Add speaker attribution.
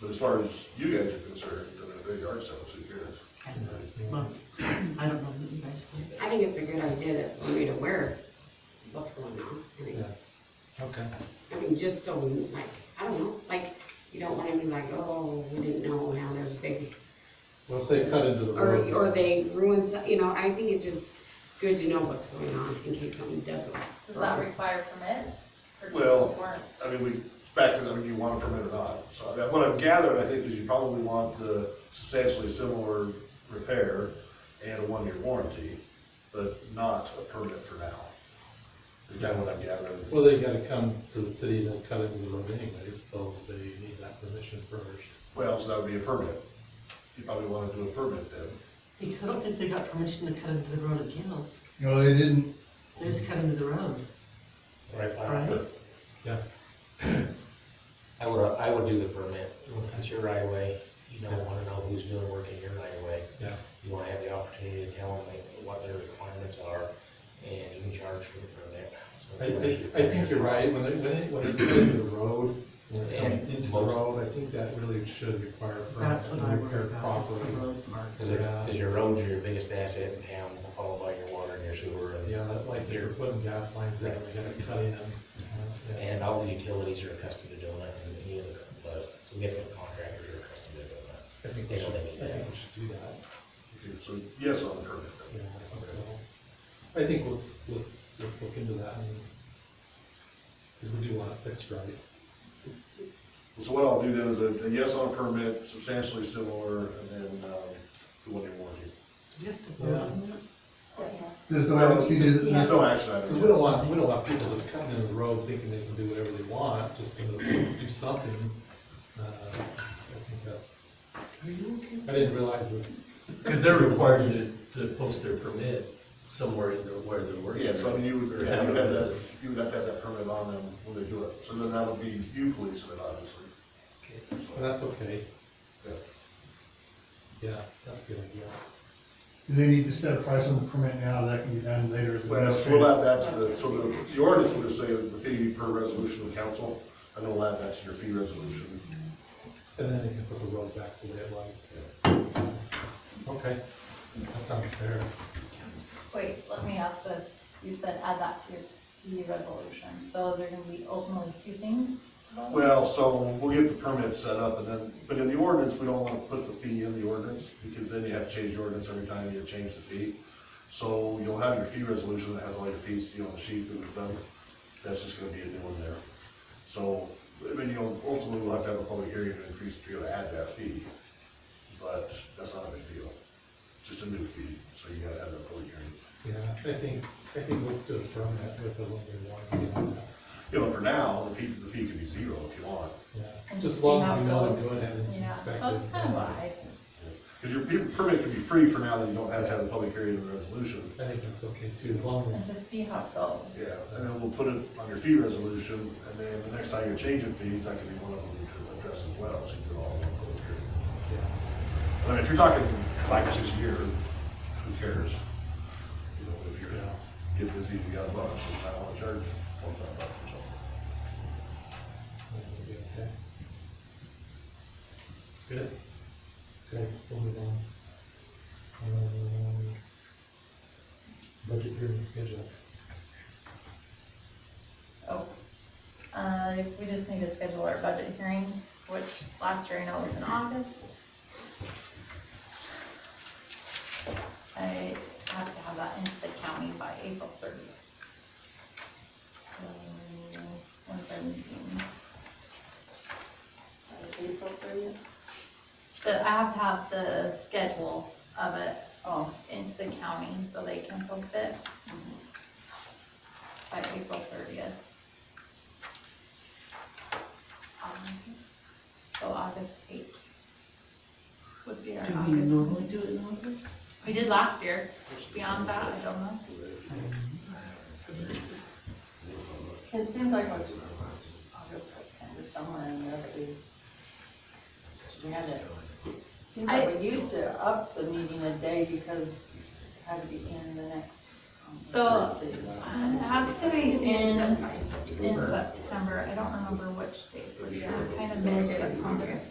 Speaker 1: But as far as you guys are concerned, I mean, if they yard sales, who cares?
Speaker 2: Well, I don't know that you guys think.
Speaker 3: I think it's a good idea that we're made aware of what's going on. I mean,
Speaker 4: Okay.
Speaker 3: I mean, just so, we like, I don't know, like, you don't wanna be like, oh, we didn't know, now there's a big,
Speaker 4: Well, if they cut into the
Speaker 3: or,
Speaker 4: road.
Speaker 3: or they ruin some, you know, I think it's just good to know what's going on in case something doesn't.
Speaker 5: Does that require permit? Or just
Speaker 1: Well-
Speaker 5: warrant?
Speaker 1: I mean, we, back to, I mean, you want a permit or not, so that, what I've gathered, I think, is you probably want the substantially similar repair and a one-year warranty, but not a permit for now. Is kind of what I'm gathering.
Speaker 4: Well, they gotta come to the city and then cut into the road anyways, so they need that permission first.
Speaker 1: Well, so that would be a permit. You probably wanna do a permit then.
Speaker 2: Because I don't think they got permission to cut into the road at Gales.
Speaker 6: No, they didn't,
Speaker 2: They just cut into the road, right?
Speaker 4: Yeah.
Speaker 7: I would, I would do the permit, it's your right of way, you don't wanna know who's doing work in your right of way.
Speaker 4: Yeah.
Speaker 7: You wanna have the opportunity to tell them like, what their requirements are, and you can charge for the permit. So
Speaker 4: I,
Speaker 7: if you want
Speaker 4: I, I think you're right, when they, when they, when they cut into the road, when they come
Speaker 7: And
Speaker 4: into the
Speaker 7: most-
Speaker 4: road, I think that really should require. a permit
Speaker 2: That's what I
Speaker 4: and repair
Speaker 2: worry about, is the
Speaker 4: properly.
Speaker 2: road part.
Speaker 7: Cause your, cause your roads are your biggest asset in town, followed by your water and your sewer and.
Speaker 4: Yeah, that- like they're putting gas lines there, we gotta cut in. Yeah.
Speaker 7: And all the utilities are accustomed to doing that, and any other, plus significant contractors are accustomed to doing that.
Speaker 4: I think we should, I think we should do that.
Speaker 1: Okay, So yes on the permit
Speaker 4: Yeah,
Speaker 1: then.
Speaker 4: so, I think let's, let's, let's look into that and, cause we do want it fixed right.
Speaker 1: So what I'll do then is a, a yes on a permit, substantially similar, and then, um, the one-year warranty.
Speaker 2: Do you have to vote on that?
Speaker 6: there's no, she didn't,
Speaker 1: There's no action
Speaker 4: Cause
Speaker 1: items.
Speaker 4: we don't want, we don't want people just cutting in the road thinking they can do whatever they want, just gonna do something. Uh, I think that's,
Speaker 2: Are you okay?
Speaker 4: I didn't realize that,
Speaker 8: Because they're required to, to post their permit somewhere in their, where they're working.
Speaker 1: Yeah, so I mean, you
Speaker 8: Or
Speaker 1: would, yeah, you
Speaker 8: have
Speaker 1: would have that,
Speaker 8: it.
Speaker 1: you would have to have that permit on them when they do it, so then that would be you policing it, obviously.
Speaker 4: but that's okay,
Speaker 1: Yeah.
Speaker 4: yeah, that's a good idea.
Speaker 6: they need to set a price on the permit now, that can be done later as
Speaker 1: Well, so
Speaker 6: administrative.
Speaker 1: we'll add that to the, so the, the ordinance would just say that the fee per resolution of council, and then we'll add that to your fee resolution.
Speaker 4: And then they can put the road back to the way it was. Okay, that sounds fair.
Speaker 5: Wait, let me ask this. You said add that to your fee resolution. So is there gonna be ultimately two things? about it?
Speaker 1: Well, so we'll get the permit set up and then, but in the ordinance, we don't wanna put the fee in the ordinance, because then you have to change the ordinance every time you change the fee. So you'll have your fee resolution that has all your fees, you know, the sheet that we've done, that's just gonna be a new one there. So, I mean, you'll, ultimately, we'll have to have a public hearing to increase, to be able to add that fee, but that's not a big deal. Just a new fee, so you gotta have that public hearing.
Speaker 4: Yeah, I think, I think let's do a permit with a little bit of warranty on that,
Speaker 1: You know, for now, the fee, the fee could be zero if you want,
Speaker 4: yeah.
Speaker 5: And
Speaker 4: Just
Speaker 5: see
Speaker 4: as long
Speaker 5: how
Speaker 4: as
Speaker 5: it
Speaker 4: we know
Speaker 5: goes.
Speaker 4: they're doing it and it's
Speaker 5: Yeah,
Speaker 4: inspected.
Speaker 5: That's kind of what I,
Speaker 1: because your pe- permit can be free for now, that you don't have to have the public hearing and the resolution.
Speaker 4: I think that's okay too, as long
Speaker 5: and
Speaker 4: as,
Speaker 5: just see how it goes.
Speaker 1: Yeah, and then we'll put it on your fee resolution, and then the next time you're changing fees, that could be one of them you could address as well, so you do it all in one go period.
Speaker 4: yeah,
Speaker 1: I mean, if you're talking five or six a year, who cares? You know, if you're, get busy, you got a bunch, so I wanna charge one time bucks or something.
Speaker 4: that'll be okay. Good. Okay, we'll move on. Um, Budget hearing schedule.
Speaker 5: Oh, uh, we just need to schedule our budget hearing, which last year I know was in August. I have to have that into the county by April thirtieth. So, when's our meeting?
Speaker 3: April thirtieth?
Speaker 5: The, I have to have the schedule of it, oh, into the county so they can post it
Speaker 3: Mm-hmm.
Speaker 5: by April thirtieth. Um, So August eighth would be our
Speaker 2: Do we
Speaker 5: August.
Speaker 2: normally do it in August?
Speaker 5: We did last year, beyond that, I don't know.
Speaker 9: It seems like it's August, September, somewhere in there, but we, we had it. Seems
Speaker 5: I-
Speaker 9: like we used to up the meeting a day because it had to be in the next. um,
Speaker 5: So- um,
Speaker 9: Thursday.
Speaker 5: It has to be in, in September, I don't remember which date, we're kind of mid-September.